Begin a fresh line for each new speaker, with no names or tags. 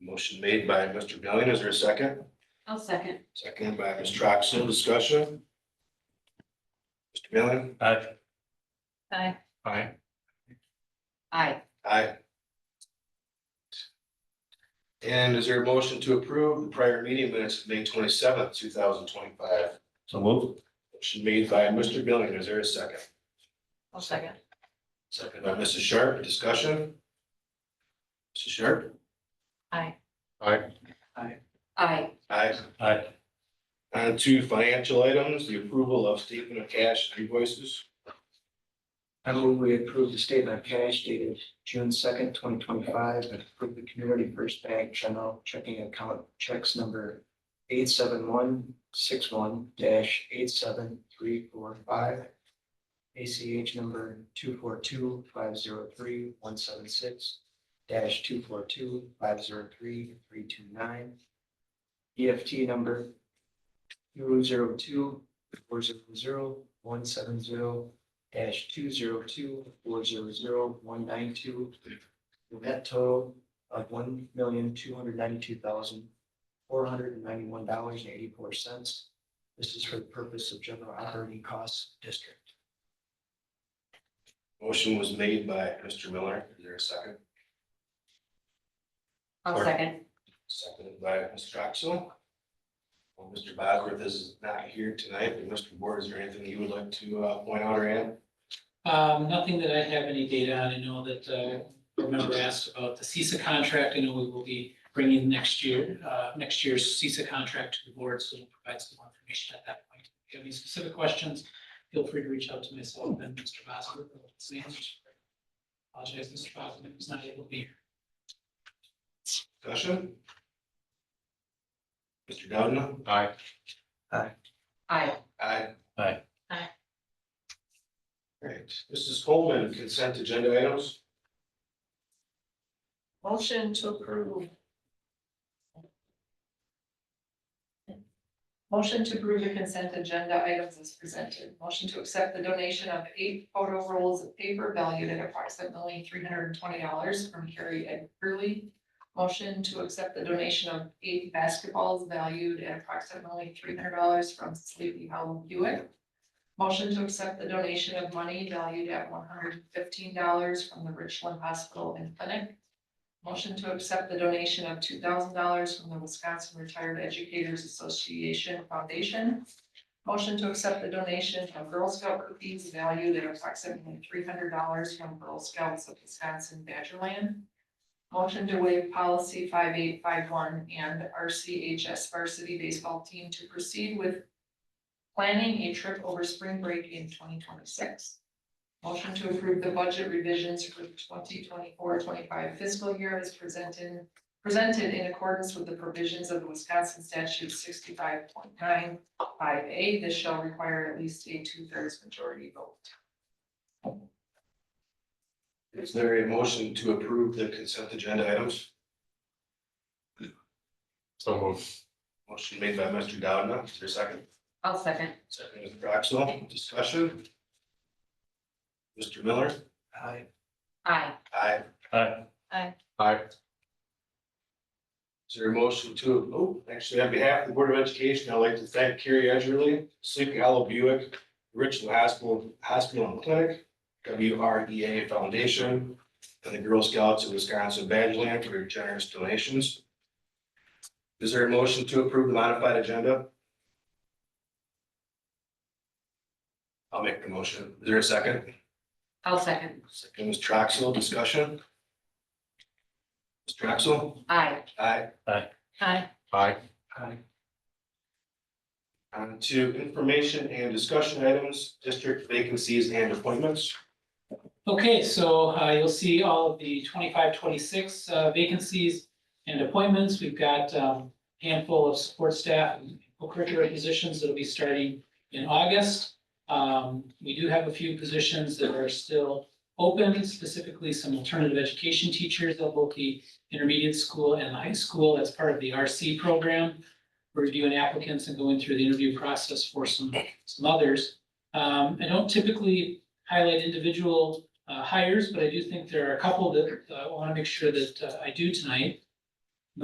Motion made by Mr. Billion. Is there a second?
I'll second.
Seconded by Ms. Troxel. Discussion? Mr. Billion?
Aye.
Aye.
Aye.
Aye.
Aye. And is there a motion to approve the prior meeting minutes of May twenty-seventh, two thousand twenty-five?
So move.
Motion made by Mr. Billion. Is there a second?
I'll second.
Second by Mrs. Sharp. Discussion? Mrs. Sharp?
Aye.
Aye.
Aye.
Aye.
Aye.
On to financial items, the approval of statement of cash and invoices.
I move we approve the statement of cash dated June second, twenty twenty-five, and approve the Community First Bank General Checking Account checks number eight seven one six one eight seven three four five. ACH number two four two five zero three one seven six two four two five zero three three two nine. EFT number two zero two four zero zero one seven zero dash two zero two four zero zero one nine two. Net total of one million two hundred ninety-two thousand four hundred and ninety-one dollars and eighty-four cents. This is for the purpose of general operating costs district.
Motion was made by Mr. Miller. Is there a second?
I'll second.
Seconded by Mr. Troxel. Well, Mr. Bosworth is not here tonight, but Mr. Board, is there anything you would like to uh, point out or add?
Um, nothing that I have any data on. I know that, uh, remember asked about the CISA contract. I know we will be bringing next year, uh, next year's CISA contract to the board, so we'll provide some more information at that point. If you have any specific questions, feel free to reach out to myself and Mr. Bosworth. or his manager. Apologize, Mr. Bosworth, was not able to be here.
Discussion? Mr. Dowden?
Aye.
Aye.
Aye.
Aye.
Aye.
Great. Mrs. Coleman, consent agenda items?
Motion to approve. Motion to approve the consent agenda items is presented. Motion to accept the donation of eight photo rolls of paper valued at approximately three hundred and twenty dollars from Carrie Ed Curley. Motion to accept the donation of eight basketballs valued at approximately three hundred dollars from Sleepy Hollow Hewitt. Motion to accept the donation of money valued at one hundred and fifteen dollars from the Richland Hospital and Clinic. Motion to accept the donation of two thousand dollars from the Wisconsin Retired Educators Association Foundation. Motion to accept the donation of Girl Scout cookies valued at approximately three hundred dollars from Girl Scouts of Wisconsin Badgerland. Motion to waive policy five eight five one and RCHS varsity baseball team to proceed with planning a trip over spring break in twenty twenty-six. Motion to approve the budget revisions for the 2024-25 fiscal year is presented, presented in accordance with the provisions of the Wisconsin statute sixty-five point nine five A. This shall require at least a two-thirds majority vote.
Is there a motion to approve the consent agenda items?
So move.
Motion made by Mr. Dowden. Is there a second?
I'll second.
Second, Mr. Troxel. Discussion? Mr. Miller?
I
Aye.
Aye.
Aye.
Aye.
Aye.
Is there a motion to, oh, actually, on behalf of the Board of Education, I'd like to thank Carrie Edgerly, Sleepy Hollow Buick, Richland Hospital, Hospital and Clinic, W R E A Foundation, and the Girl Scouts of Wisconsin Badgerland for your generous donations. Is there a motion to approve the modified agenda? I'll make the motion. Is there a second?
I'll second.
Second, Ms. Troxel, discussion? Ms. Troxel?
Aye.
Aye.
Aye.
Aye.
I
On to information and discussion items, district vacancies and appointments.
Okay, so uh, you'll see all of the 25, 26 uh, vacancies and appointments. We've got um, handful of support staff and curricular positions that'll be starting in August. Um, We do have a few positions that are still open, specifically some alternative education teachers at both the intermediate school and the high school. That's part of the RC program. We're Reviewing applicants and going through the interview process for some, some others. Um, I don't typically highlight individual uh, hires, but I do think there are a couple that uh, I want to make sure that uh, I do tonight.